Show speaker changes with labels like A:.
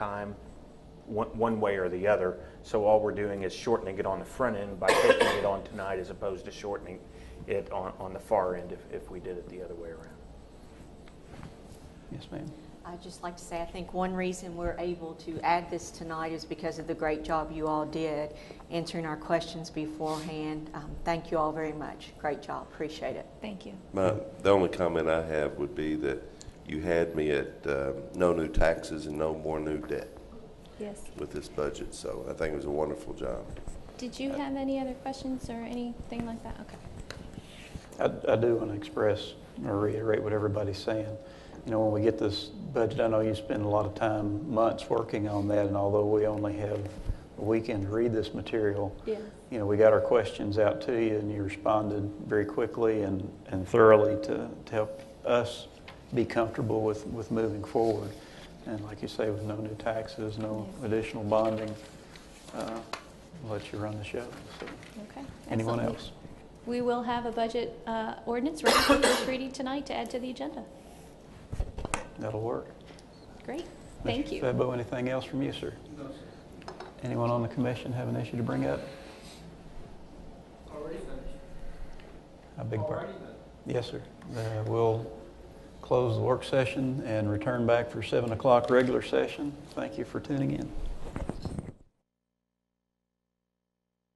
A: time, one, one way or the other. So all we're doing is shortening it on the front end by taking it on tonight as opposed to shortening it on, on the far end if, if we did it the other way around.
B: Yes, ma'am.
C: I'd just like to say, I think one reason we're able to add this tonight is because of the great job you all did answering our questions beforehand. Um, Thank you all very much. Great job. Appreciate it.
D: Thank you.
E: My, the only comment I have would be that you had me at um, no new taxes and no more new debt
D: Yes.
E: with this budget, so I think it was a wonderful job.
D: Did you have any other questions or anything like that? Okay.
B: I, I do want to express or reiterate what everybody's saying. You know, when we get this budget, I know you spend a lot of time, months working on that, and although we only have a weekend to read this material,
D: Yeah.
B: you know, we got our questions out to you, and you responded very quickly and, and thoroughly to, to help us be comfortable with, with moving forward. And like you say, with no new taxes, no
D: Yes.
B: additional bonding, uh, we'll let you run the show. So,
D: Okay.
B: anyone
D: Excellent.
B: else?
D: We will have a budget uh, ordinance ready for first reading tonight to add to the agenda.
B: That'll work.
D: Great. Thank
B: Mr.
D: you.
B: Febo, anything else from you, sir? No, sir. Anyone on the commission have an issue to bring up? A big pardon? Yes, sir. Uh, We'll close the work session and return back for 7 o'clock regular session. Thank you for tuning in.